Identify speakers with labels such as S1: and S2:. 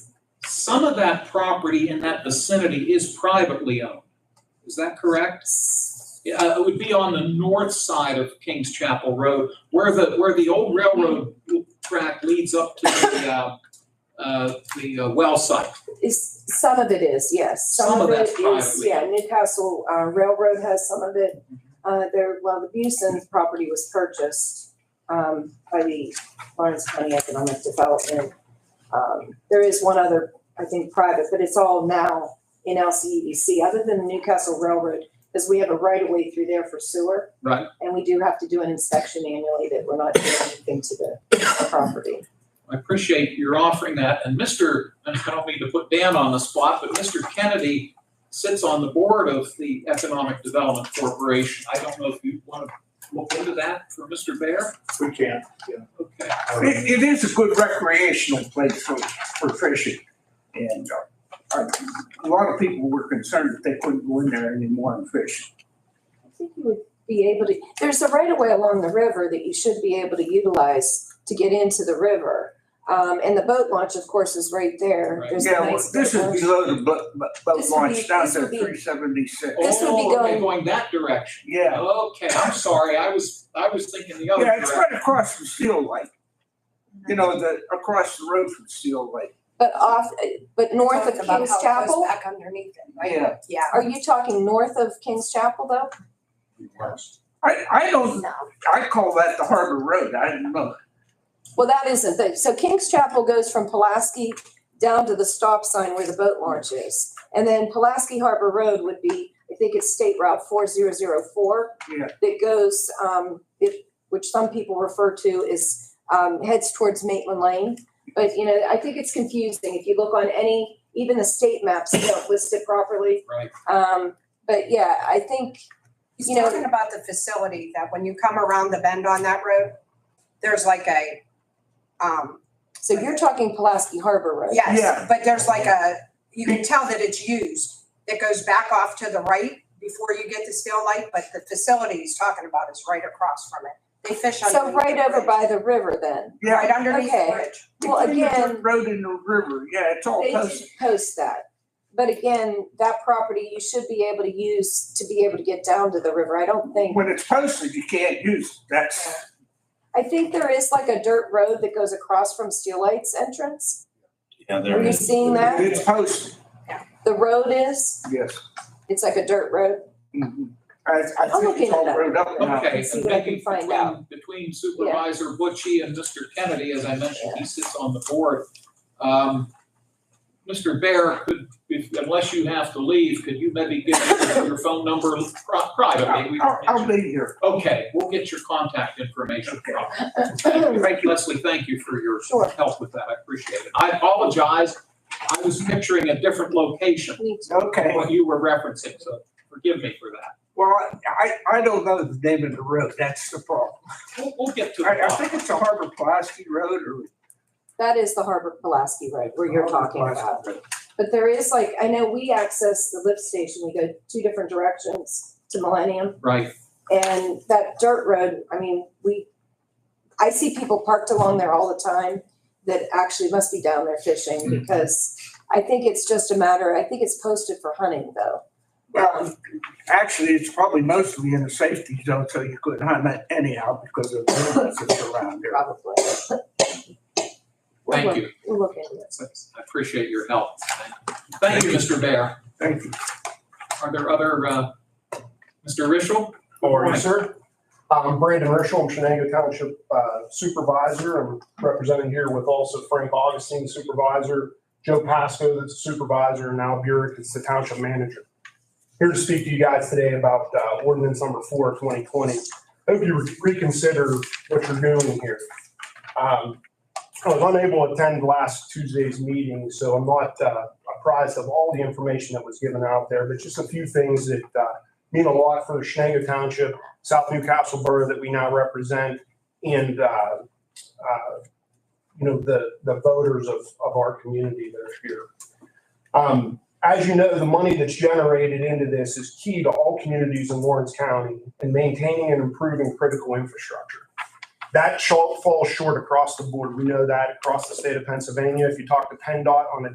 S1: some of that property in that vicinity is privately owned. Is that correct? Yeah, uh, it would be on the north side of Kings Chapel Road, where the, where the old railroad track leads up to the, uh, uh, the uh, well site.
S2: Is, some of it is, yes.
S1: Some
S2: Some
S1: of
S2: of it
S1: that's
S2: is,
S1: privately.
S2: yeah, Newcastle uh, Railroad has some of it. Uh, there, well, the Buson's property was purchased, um, by the Lawrence County Economic Development. Um, there is one other, I think, private, but it's all now in LCEDC, other than the Newcastle Railroad, because we have a right of way through there for sewer.
S1: Right.
S2: And we do have to do an inspection annually that we're not doing anything to the the property.
S1: I appreciate your offering that. And Mr., and I don't mean to put Dan on the spot, but Mr. Kennedy sits on the board of the Economic Development Corporation. I don't know if you want to look into that for Mr. Bear?
S3: We can't.
S1: Okay.
S3: It, it is a good recreational place for, for fishing. And uh, I- a lot of people were concerned that they couldn't go in there anymore and fish.
S2: I think you would be able to, there's a right of way along the river that you should be able to utilize to get into the river. Um, and the boat launch, of course, is right there.
S1: Right.
S2: There's a
S3: Yeah, well,
S2: nice.
S3: this is
S2: boat launch.
S3: below the boat, boat
S2: This would be-
S3: launch down
S2: this
S3: to
S2: would be-
S3: three seventy-six.
S2: This would be
S1: Oh, okay,
S2: going-
S1: Going that direction.
S3: Yeah,
S1: Okay, I'm sorry. I was, I was thinking the other
S3: yeah, it's
S1: direction.
S3: right across from Steel Lake. You know, the, across the road from Steel Lake.
S2: But off, but north of
S4: Talked about
S2: King's
S4: how it goes
S2: Chapel?
S4: Back underneath it, right?
S3: Yeah.
S4: Yeah.
S2: Are you talking north of King's Chapel though?
S3: I, I don't,
S4: No.
S3: I call that the Harbor Road. I don't know.
S2: Well, that isn't the, so King's Chapel goes from Pulaski down to the stop sign where the boat launch is. And then Pulaski Harbor Road would be, I think it's State Route four zero zero four.
S3: Yeah.
S2: That goes, um, it, which some people refer to as, um, heads towards Maitland Lane. But, you know, I think it's confusing. If you look on any, even the state maps, they don't list it properly.
S1: Right.
S2: Um, but yeah, I think,
S4: He's
S2: You know-
S4: talking about the facility that when you come around the bend on that road, there's like a, um,
S2: so you're talking Pulaski Harbor Road.
S3: Yeah.
S4: yes, but there's like a, you can tell that it's used. It goes back off to the right before you get to Steel Lake, but the facility he's talking about is right across from it. They fish
S2: So
S4: underneath.
S2: right
S4: the
S2: over
S4: bridge.
S2: by the river then.
S3: Yeah,
S4: Right underneath the
S2: Okay.
S4: bridge.
S2: Well,
S3: Between the
S2: again.
S3: Road and the river, yeah, it's all
S2: They
S3: posted.
S2: did post that. But again, that property you should be able to use to be able to get down to the river. I don't think,
S3: When it's posted, you can't use it. That's,
S2: I think there is like a dirt road that goes across from Steel Light's entrance.
S5: Yeah,
S2: Are
S5: there
S2: you
S5: is.
S2: seeing that?
S3: it's posted,
S2: The road is,
S3: yes.
S2: it's like a dirt road.
S3: Mhm. I, I
S2: I'll look
S3: think it's
S2: into
S3: all
S2: that.
S3: wrote up now.
S1: Okay,
S2: see
S1: and
S2: what I
S1: maybe
S2: can find
S1: between,
S2: out.
S1: between Supervisor Butchie and Mr. Kennedy, as I mentioned, he sits on the board. Um, Mr. Bear, could, if, unless you have to leave, could you maybe give us your phone number pri- privately? We can
S3: I'll, I'll-
S1: get
S3: I'll
S1: you-
S3: be here.
S1: Okay, we'll get your contact information from you.
S3: Thank you.
S1: Leslie, thank you for your
S2: Sure.
S1: help with that, I appreciate it. I apologize, I was picturing a different location,
S2: Me too.
S3: Okay,
S1: what you were referencing, so forgive me for that.
S3: well, I, I don't know the name of the road, that's the problem.
S1: We'll, we'll get to
S3: I, I
S1: it.
S3: think it's a Harbor Pulaski Road or.
S2: That is the Harbor Pulaski Road where you're
S3: Harbor
S2: talking
S3: Pulaski
S2: about.
S3: Road.
S2: But there is like, I know we access the lift station, we go two different directions to Millennium.
S1: Right,
S2: And that dirt road, I mean, we, I see people parked along there all the time that actually must be down there fishing because I think it's just a matter, I think it's posted for hunting though.
S3: Well, actually, it's probably mostly in the safety zone, so you couldn't hunt it anyhow because of the businesses around there.
S2: Probably. We'll
S1: thank
S2: look-
S1: you.
S2: We'll look into it.
S1: I appreciate your help. Thank you, Mr. Bear.
S3: Thank you.
S1: Are there other, uh, Mr. Rischel?
S6: Morning, sir. I'm Brandon Rischel, I'm Shenango Township uh, Supervisor. I'm represented here with also Frank Augustine Supervisor, Joe Pasco that's Supervisor, and Al Burek is the Township Manager. Here to speak to you guys today about uh, ordinance number four, 2020. Hope you reconsider what you're doing here. Um, I was unable to attend last Tuesday's meeting, so I'm not uh, apprised of all the information that was given out there, but just a few things that uh, mean a lot for Shenango Township, South Newcastle Borough that we now represent, and, uh, uh, you know, the, the voters of, of our community that are here. Um, As you know, the money that's generated into this is key to all communities in Lawrence County in maintaining and improving critical infrastructure. That short, falls short across the board. We know that across the state of Pennsylvania. If you talk to PennDOT on a